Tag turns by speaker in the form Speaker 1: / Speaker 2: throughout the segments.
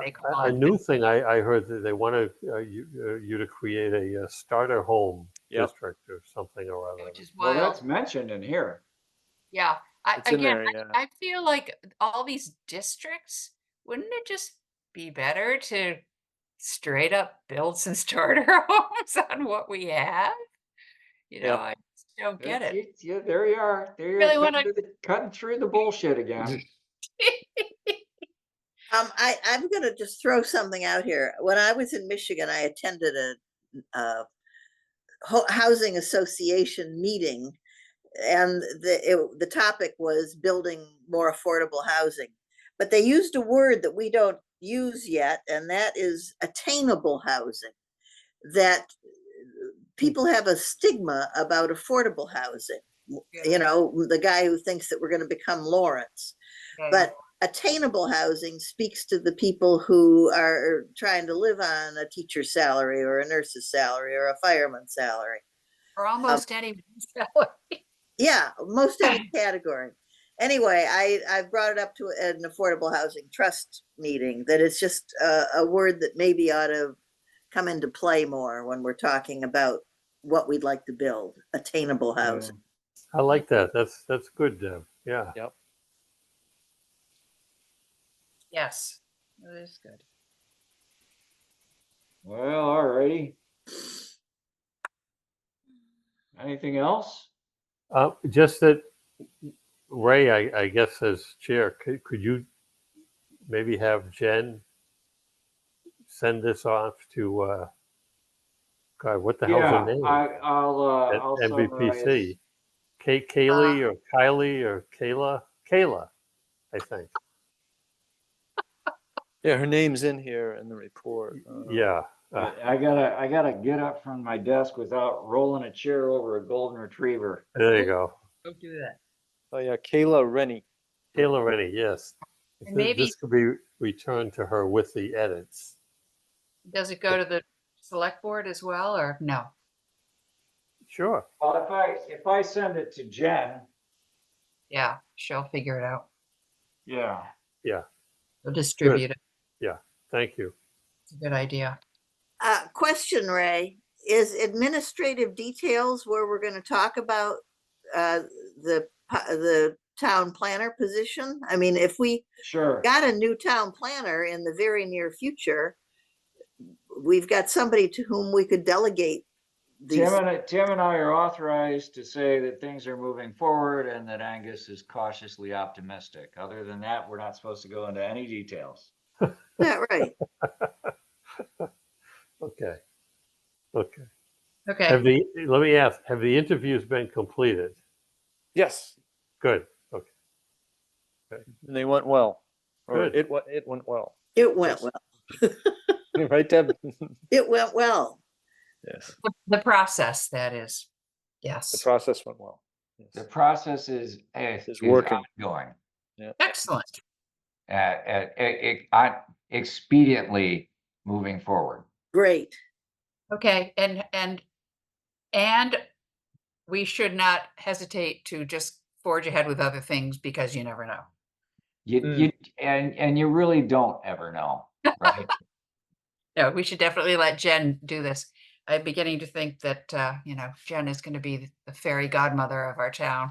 Speaker 1: Make
Speaker 2: A-
Speaker 1: all
Speaker 2: A
Speaker 1: of
Speaker 2: new thing I, I heard that they want to, you, uh, you to create a uh, starter home
Speaker 3: Yep.
Speaker 2: district or something or
Speaker 1: it,
Speaker 2: other.
Speaker 1: Which is
Speaker 4: Well,
Speaker 1: wild.
Speaker 4: that's mentioned in here.
Speaker 1: Yeah. I,
Speaker 3: It's in
Speaker 1: again,
Speaker 3: there, yeah.
Speaker 1: I feel like all these districts, wouldn't it just be better to straight up build some starter homes on what we have? You
Speaker 3: Yep.
Speaker 1: know, I just don't get it.
Speaker 4: It's- Yeah, there you are. There you
Speaker 1: Really
Speaker 4: are.
Speaker 1: wanna-
Speaker 4: Cutting, through the- cutting through the bullshit again.
Speaker 5: Um, I, I'm gonna just throw something out here. When I was in Michigan, I attended a, uh, ho- housing association meeting. And the, it, the topic was building more affordable housing. But they used a word that we don't use yet, and that is attainable housing. That uh, people have a stigma about affordable housing. W- You know, the guy who thinks that we're gonna become Lawrence
Speaker 1: Yeah,
Speaker 5: but attainable housing speaks to the people who are trying to live on a teacher's salary or a nurse's salary or a fireman's salary.
Speaker 1: For almost anyone.
Speaker 5: Yeah, most any category. Anyway, I, I brought it up to an affordable housing trust meeting that it's just a, a word that maybe ought to come into play more when we're talking about what we'd like to build, attainable housing.
Speaker 2: I like that. That's, that's good, Deb. Yeah.
Speaker 1: Yes. That is good.
Speaker 4: Well, alrighty. Anything else?
Speaker 2: Uh, just that, Ray, I, I guess as chair, could, could you maybe have Jen send this off to, uh, God, what the hell's
Speaker 4: Yeah,
Speaker 2: her name?
Speaker 4: I, I'll, uh,
Speaker 2: At
Speaker 4: I'll summarize.
Speaker 2: MVPC. Kay, Kaylee or Kylie or Kayla? Kayla, I think.
Speaker 3: Yeah, her name's in here in the report. uh,
Speaker 2: Yeah. Uh,
Speaker 4: I I gotta, I gotta get up from my desk without rolling a chair over a golden retriever.
Speaker 2: There you go.
Speaker 1: Don't do that.
Speaker 3: Oh, yeah, Kayla Rennie.
Speaker 2: Kayla Rennie, yes.
Speaker 1: And
Speaker 2: Th-
Speaker 1: maybe-
Speaker 2: This could be returned to her with the edits.
Speaker 1: Does it go to the select board as well or no?
Speaker 2: Sure.
Speaker 4: Well, if I, if I send it to Jen,
Speaker 1: Yeah, she'll figure it out.
Speaker 4: yeah.
Speaker 1: She'll distribute it.
Speaker 2: Thank you.
Speaker 1: It's a good idea.
Speaker 5: Uh, question, Ray, is administrative details where we're gonna talk about, uh, the, po- the town planner position? I mean, if we
Speaker 4: Sure.
Speaker 5: got a new town planner in the very near future, we've got somebody to whom we could delegate these.
Speaker 4: Tim and, I- Tim and I are authorized to say that things are moving forward and that Angus is cautiously optimistic. Other than that, we're not supposed to go into any details.
Speaker 5: Yeah, right.
Speaker 2: Okay. Okay. Have
Speaker 1: Okay,
Speaker 2: the, let me ask, have the interviews been completed?
Speaker 3: Yes,
Speaker 2: Good.
Speaker 3: and they went well. Or
Speaker 2: Good.
Speaker 3: it, wa- it went well.
Speaker 5: It went
Speaker 3: Yes.
Speaker 5: well.
Speaker 3: Right, Deb?
Speaker 5: It went well.
Speaker 3: Yes,
Speaker 1: the- the process, that is.
Speaker 3: the
Speaker 1: Yes,
Speaker 3: process went well. Yes.
Speaker 4: The process is, eh,
Speaker 3: It's
Speaker 4: is
Speaker 3: working.
Speaker 4: ongoing.
Speaker 1: excellent.
Speaker 4: Uh, uh, e- e- on- expediently moving forward.
Speaker 5: Great.
Speaker 1: Okay, and, and, and we should not hesitate to just forge ahead with other things because you never know.
Speaker 4: You,
Speaker 3: Mm.
Speaker 4: you, and, and you really don't ever know, right?
Speaker 1: No, we should definitely let Jen do this. I'm beginning to think that, uh, you know, Jen is gonna be the fairy godmother of our town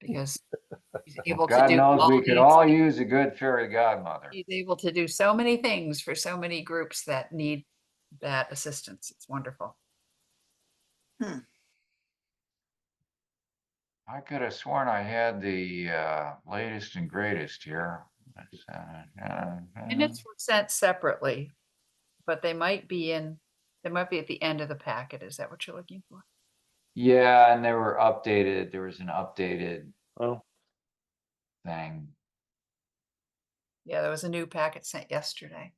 Speaker 1: because she's able to
Speaker 4: God
Speaker 1: do.
Speaker 4: knows,
Speaker 1: all
Speaker 4: we could
Speaker 1: these-
Speaker 4: all use a good fairy godmother.
Speaker 1: She's able to do so many things for so many groups that need that assistance. It's wonderful.
Speaker 4: I could have sworn I had the, uh, latest and greatest here. That's, uh, uh,
Speaker 1: Minutes were sent separately, but they might be in, they might be at the end of the packet. Is that what you're looking for?
Speaker 4: Yeah, and they were updated. There was an updated
Speaker 3: Oh,
Speaker 4: thing.
Speaker 1: Yeah, there was a new packet sent yesterday.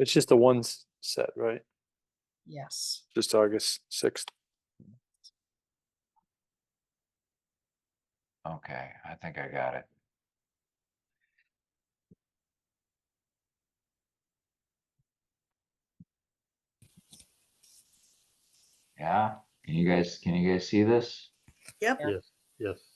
Speaker 3: it's just the one s- set, right?
Speaker 1: Yes.
Speaker 3: Just August 6th.
Speaker 4: Okay, I think I got it. Yeah, can you guys, can you guys see this?
Speaker 5: Yep.
Speaker 2: Yes. Yes.